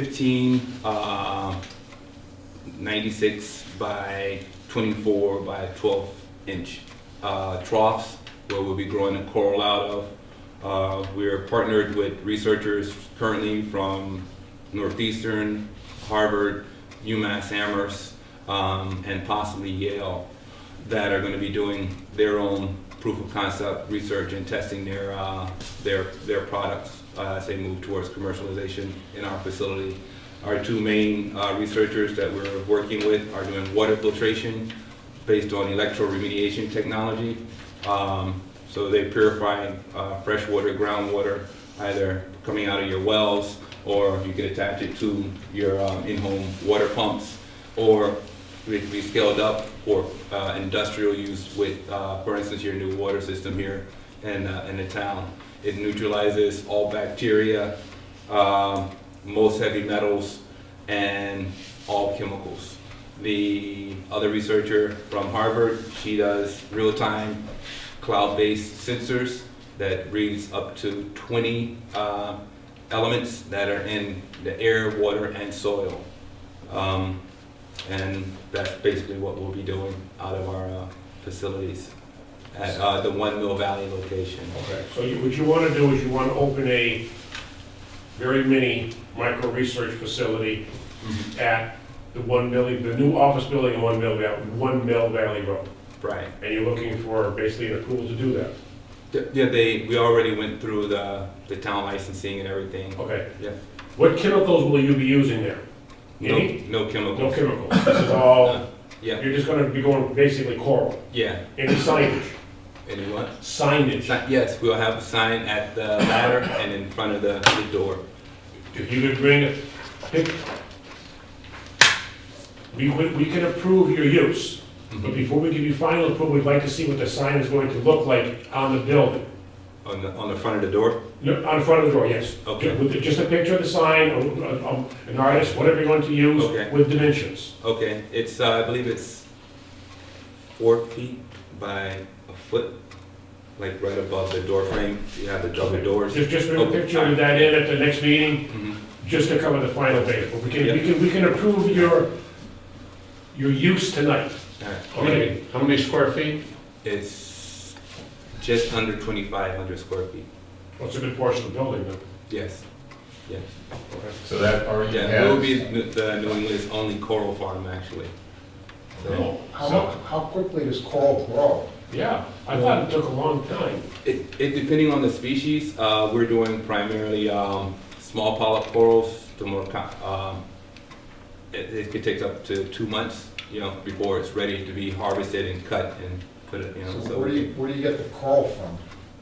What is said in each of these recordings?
fifteen, uh, ninety-six by twenty-four by twelve inch, uh, troughs where we'll be growing the coral out of. Uh, we're partnered with researchers currently from Northeastern, Harvard, UMass Amherst, um, and possibly Yale that are going to be doing their own proof of concept research and testing their uh, their their products uh, as they move towards commercialization in our facility. Our two main uh, researchers that we're working with are doing water filtration based on electroremediation technology. Um, so they purify uh, fresh water, groundwater, either coming out of your wells or you can attach it to your um, in-home water pumps or it can be scaled up for uh, industrial use with, uh, for instance, your new water system here in, uh, in the town. It neutralizes all bacteria, um, most heavy metals, and all chemicals. The other researcher from Harvard, she does real-time cloud-based sensors that reads up to 20 uh, elements that are in the air, water, and soil. Um, and that's basically what we'll be doing out of our uh, facilities at uh, the One Mill Valley location. Okay, so you- what you want to do is you want to open a very mini micro-research facility at the One Mill, the new office building in One Mill, Val- One Mill Valley Road. Right. And you're looking for basically an approval to do that. Th- Yeah, they, we already went through the, the town licensing and everything. Okay, Yeah. what chemicals will you be using there? No, Any? no No chemicals. chemicals, this is all, Yeah, you're just going to be going basically coral. yeah. Any signage? Anyone? Signage. Si- Yes, we'll have a sign at the ladder and in front of the, the door. If you could bring a pic- we, we we can approve your use, Mm-hmm. but before we give you final approval, we'd like to see what the sign is going to look like on the building. On the, on the front of the door? No, On the front of the door, yes. Okay. With the- just a picture of the sign, a- a- a- an artist, whatever you want to use, Okay. with dimensions. Okay, it's, uh, I believe it's four feet by a foot, like right above the door frame. You have the double doors. Just, just bring a Okay. picture of that in at the next meeting, Mhm. just to cover the final base. But we can, Yeah. we can, we can approve your, your use tonight. All right. How many, how many square feet? Uh, It's just under 2,500 square feet. What's a good portion of the building, then? Yes, yes. So that already Yeah, it will has, be n- the New England's only coral farm, actually. So How, how quickly does coral grow? Yeah, I thought it took a long time. it, it, depending on the species, uh, we're doing primarily, um, small polyp corals, the more, co- um, it, it could take up to two months, you know, before it's ready to be harvested and cut and put it, you So know, where do so. you, where do you get the coral from?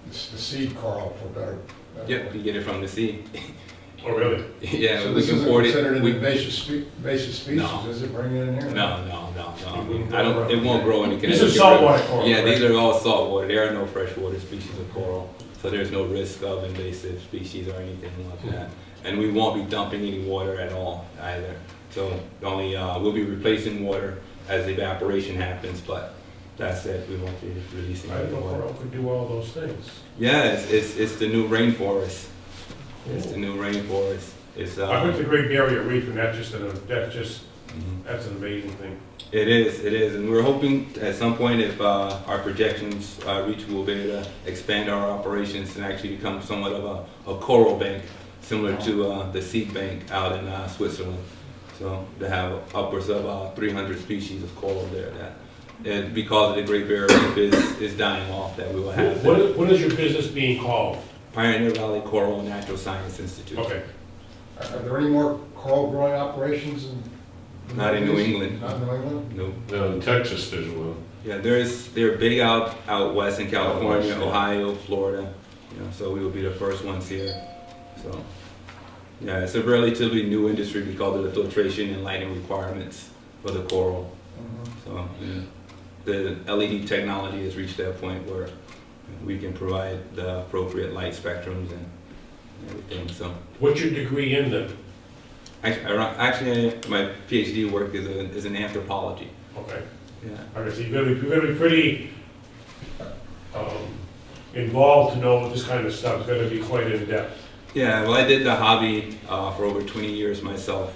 It's the seed coral for better. better Yep, word. you get it from the sea. Oh, really? Yeah, So we this can isn't board it. considered an We- invasive spe, invasive No. species, is it bringing it in here? No, no, no, no. I mean, wouldn't I don't, grow it won't around grow in the These Connecticut. are saltwater River. coral, Yeah, these right? are all saltwater. There are no freshwater species of coral, so there's no risk of invasive species or anything Hmm. like that. And we won't be dumping any water at all either. So the only, uh, we'll be replacing water as evaporation happens, but that's it. We won't be releasing I any don't know water. coral could do all those things. Yeah, it's, it's, it's the new rainforest. It's the Cool. new rainforest. It's, I went to uh, Great Barrier Reef, and that's just, an- that's just, mhm. that's an amazing thing. It is, it is, and we're hoping at some point if uh, our projections uh, reach, we'll be able to expand our operations and actually become somewhat of a, a coral bank, similar to uh, the seed bank out in uh, Switzerland. So to have upwards of uh, 300 species of coral there, that and because of the Great Barrier Reef is, is dying off, that we will have What that. is, what is your business being called? Pioneer Valley Coral Natural Science Institute. Okay, Are are there any more coral growing operations in? Not in New England. Not in New England? No, no, in Texas there's one. yeah, there's they're big out out west in California, Out west, yeah. Ohio, Florida. You know, so we will be the first ones here. So yeah, it's a relatively new industry because of the filtration and lighting requirements for the coral. Mhm. So yeah, the LED technology has reached that point where we can provide the appropriate light spectrums and everything. So what's your degree in then? actually, actually my PhD work is, a, is in anthropology. Okay, Yeah. all right, so you're gonna, be- you're gonna be pretty, um, involved to know this kind of stuff, it's gonna be quite in-depth. Yeah, well, I did the hobby uh, for over 20 years myself.